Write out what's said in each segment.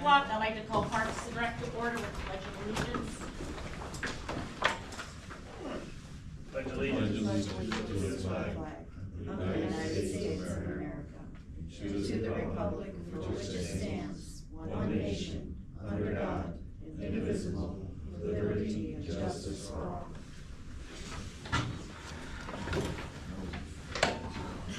block, I like to call Parks and Rec to order with the pledge of allegiance. Pledge allegiance to the flag of the United States of America, and to the republic for which it stands, one nation, under God, indivisible, with liberty and justice for all. Ms.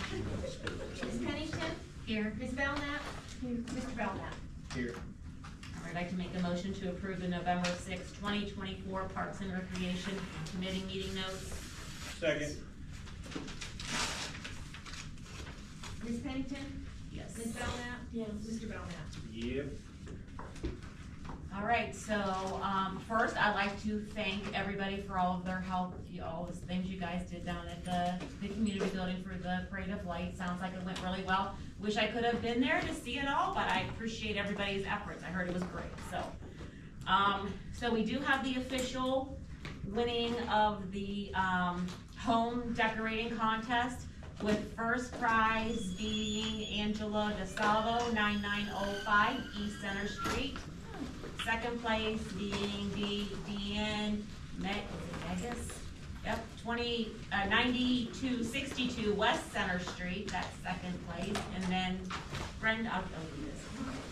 Pennington? Here. Ms. Belknap? Here. Mr. Belknap? here. All right, I'd like to make a motion to approve the November sixth, twenty twenty-four Parks and Recreation Committee meeting notes. Second, Ms. Pennington? Yes. Ms. Belknap? Yes. Mr. Belknap? yep, All right, so, um, first, I'd like to thank everybody for all of their help, you- all the things you guys did down at the, the community building for the Parade of Lights. Sounds like it went really well. Wish I could have been there to see it all, but I appreciate everybody's efforts. I heard it was great, so. Um, so we do have the official winning of the, um, home decorating contest with first prize being Angela DeSalvo, nine nine oh five East Center Street. Second place being the DN Meg- Megas, yep, twenty, uh, ninety-two sixty-two West Center Street, that's second place. And then Brenda, I'll, I'll do this.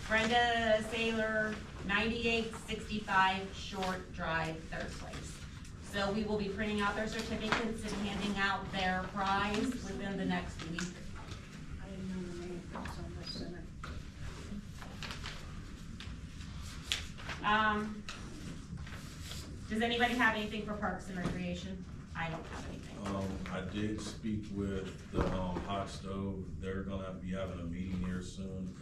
Brenda Saylor, ninety-eight sixty-five Short Drive, third place. So we will be printing out their certificates and handing out their prize within the next week. I didn't know the name that was on the center. Um, does anybody have anything for Parks and Recreation? I don't have anything. Um, I did speak with the, um, hot stove, they're gonna be having a meeting here soon.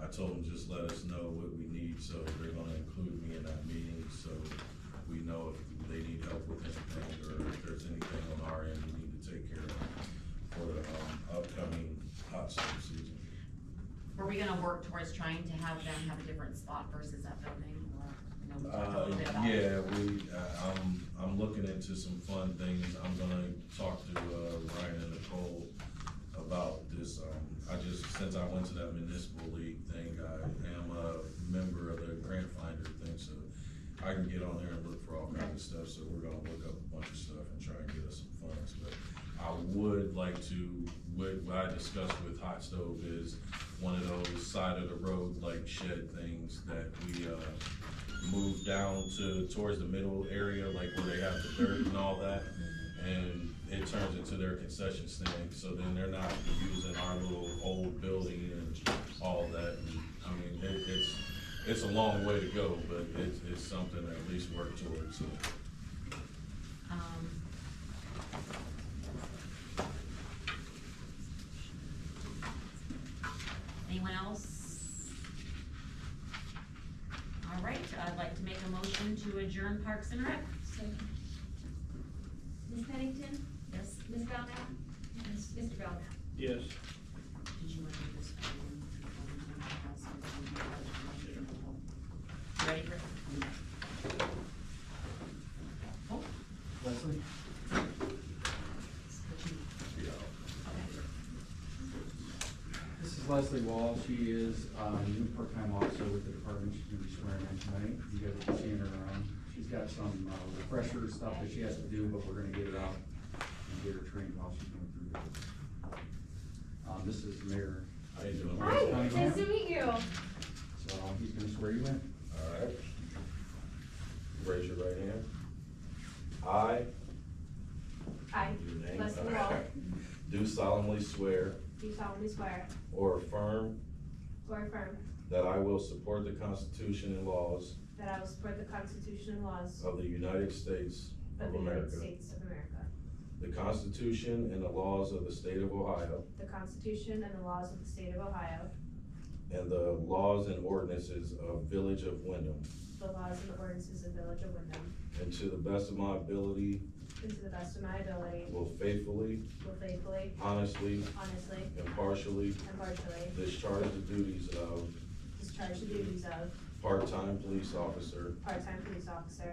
I told them just let us know what we need, so they're gonna include me in that meeting, so we know if they need help with anything, or if there's anything on our end we need to take care of for the, um, upcoming hot stove season. Were we gonna work towards trying to have them have a different spot versus that building, or, you know, we talked a Uh, little bit about? yeah, we, uh, I'm, I'm looking into some fun things, I'm gonna talk to, uh, Ryan and Nicole about this, um, I just, since I went to that municipal league thing, I am a member of the grant finder thing, so I can get on there and look for all kinds of stuff, so we're gonna look up a bunch of stuff and try and get us some funds, but I would like to, what, what I discussed with Hot Stove is one of those side of the road like shed things that we, uh, move down to, towards the middle area, like where they have the dirt and all that. And it turns into their concession stand, so then they're not using our little old building and all that. I mean, it, it's, it's a long way to go, but it's, it's something to at least work towards, so. Um, Anyone else? All right, I'd like to make a motion to adjourn Parks and Rec. Ms. Pennington? Yes, Ms. Belknap? Yes. Mr. Belknap? yes. did you want to do this? one? Ready for? Oh, Leslie? what you- okay. This is Leslie Wall. She is uh, a new part-time officer with the department. She's gonna be swearing in tonight. You guys will be seeing her around. She's got some uh, refresher stuff that she has to do, but we're gonna get her out and get her trained while she's going through it. Um, This is Mayor. How you doing? Morris County Mayor. meet you. So he's gonna swear you in. All right. Raise your right hand. I. I, your name, Leslie Wall, Do solemnly swear do solemnly swear or affirm or affirm that I will support the Constitution and laws that I will support the Constitution and laws of the United States of of the United America, States of America, the Constitution and the laws of the State of Ohio, the Constitution and the laws of the State of Ohio, and the laws and ordinances of Village of Wyndham, the laws and ordinances of Village of Wyndham, and to the best of my ability and to the best of my ability, will faithfully, will faithfully, honestly, honestly, impartially and partially discharge the duties of discharge the duties of part-time police officer part-time police officer